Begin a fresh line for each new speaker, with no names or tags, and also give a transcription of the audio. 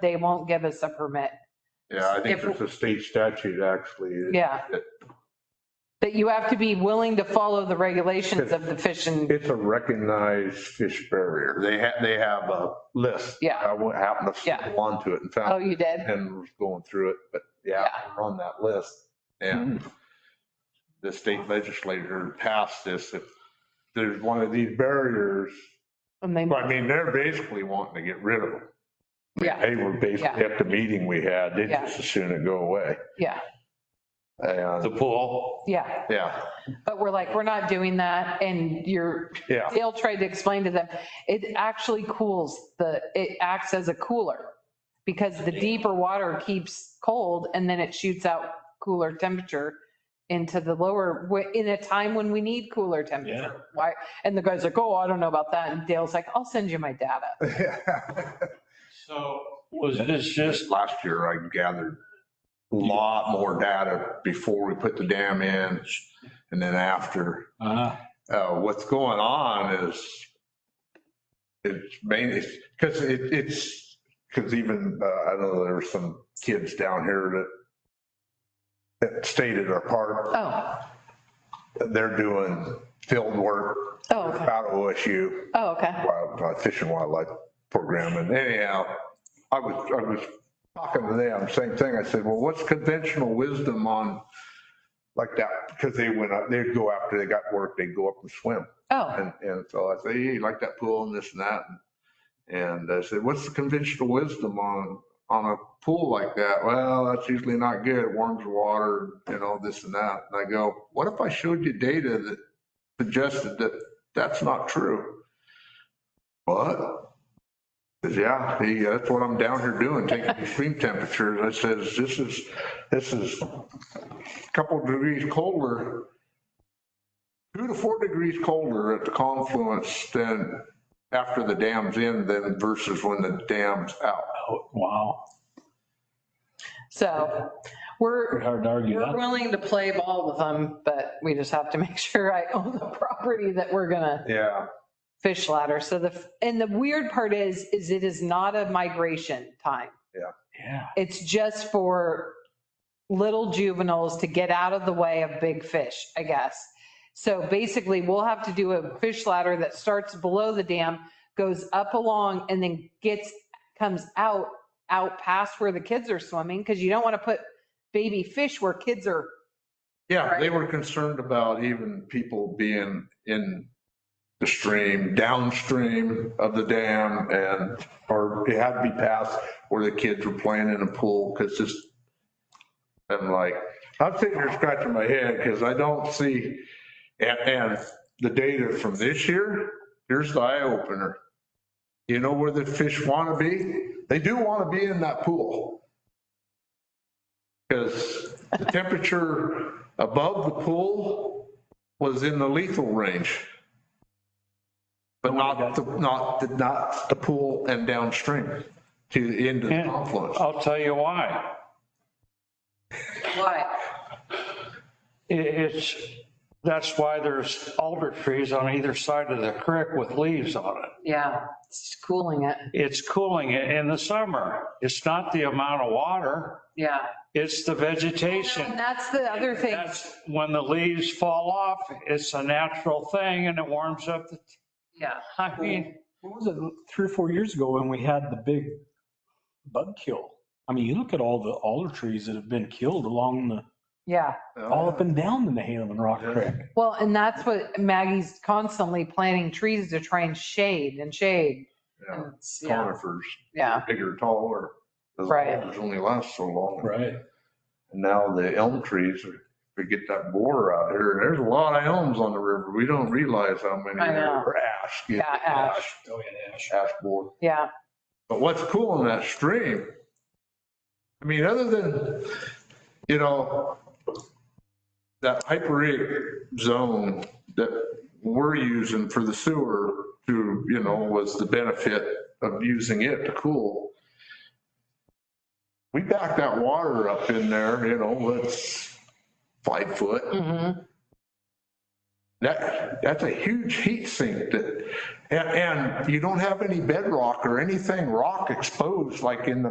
they won't give us a permit.
Yeah, I think
If-
there's a state statute actually.
Yeah. That you have to be willing to follow the regulations of the fishing.
It's a recognized fish barrier. They have, they have a list.
Yeah.
I wa- happened to
Yeah.
stumble onto it and
Oh,
found,
you did?
and was going through it, but yeah, we're on that list.
Hmm.
And the state legislature passed this. If there's one of these barriers,
And they,
I mean, they're basically wanting to get rid of them.
yeah,
They were basically at the meeting we had, they
Yeah.
just assumed it go away.
yeah,
And
The pool,
yeah.
yeah,
But we're like, we're not doing that. And you're,
yeah.
Dale tried to explain to them, it actually cools the, it acts as a cooler because the deeper water keeps cold and then it shoots out cooler temperature into the lower, in a time when we need cooler temperature. Why? And the guy's like, oh, I don't know about that. And Dale's like, I'll send you my data.
so was this just,
last year, I gathered a lot more data before we put the dam in and then after.
uh,
Uh, What's going on is it's mainly, because it, it's, because even, uh, I know there were some kids down here that that stayed at our park,
Oh,
they're doing field work
oh, okay.
out of OSU.
Oh, okay.
wild, uh, Fish and Wildlife Program. And anyhow, I was, I was talking to them, same thing. I said, well, what's conventional wisdom on like that? Because they went up, they'd go after they got work, they'd go up and swim.
Oh,
And, and so I said, hey, you like that pool and this and that? And I said, what's the conventional wisdom on, on a pool like that? Well, that's usually not good. It warms the water, you know, this and that. And I go, what if I showed you data that suggested that that's not true? But, says, yeah, he- that's what I'm down here doing, taking extreme temperatures. I says, this is, this is a couple degrees colder two to four degrees colder at the confluence than after the dam's in than versus when the dam's out.
oh, wow,
so we're,
pretty hard to argue
we're
that.
willing to play ball with them, but we just have to make sure I own the property that we're gonna
Yeah.
fish ladder. So the, and the weird part is, is it is not a migration time.
Yeah,
It's just for little juveniles to get out of the way of big fish, I guess. So basically, we'll have to do a fish ladder that starts below the dam, goes up along and then gets, comes out, out past where the kids are swimming, because you don't want to put baby fish where kids are,
Yeah, they were concerned about even people being in the stream, downstream of the dam and, or it had to be past where the kids were playing in a pool because just, I'm like, I'm sitting here scratching my head because I don't see, and, and the data from this year, here's the eye opener. You know where the fish want to be? They do want to be in that pool. Because the temperature above the pool was in the lethal range. But not, the- not, the- not the pool and downstream to the end of the
Yeah.
confluence.
I'll tell you why.
why?
I- It's, that's why there's alder trees on either side of the creek with leaves on it.
Yeah, it's cooling it.
It's cooling it in the summer. It's not the amount of water,
Yeah.
it's the vegetation.
And that's the other thing.
That's when the leaves fall off, it's a natural thing and it warms up the,
Yeah.
I mean,
What was it, three or four years ago when we had the big bug kill? I mean, you look at all the alder trees that have been killed along the,
Yeah.
all
Ah.
up and down the Nahalem and Rock Creek.
Well, and that's what Maggie's constantly planting trees to try and shade and shade.
Yeah.
And it's- Yeah.
conifers,
Yeah.
bigger, taller. Those
Right.
alders only last so long.
Right.
And Now the elm trees, are- we get that borer out here, there's a lot of elms on the river. We don't realize how many
I know.
are ash. you know,
Yeah, ash.
Oh, yeah, ash.
Ash borer.
Yeah.
But what's cool in that stream? I mean, other than, you know, that hyperic zone that we're using for the sewer to, you know, was the benefit of using it to cool. We backed that water up in there, you know, it's five foot.
Mhm.
That, that's a huge heat sink that, and, and you don't have any bedrock or anything rock exposed like in the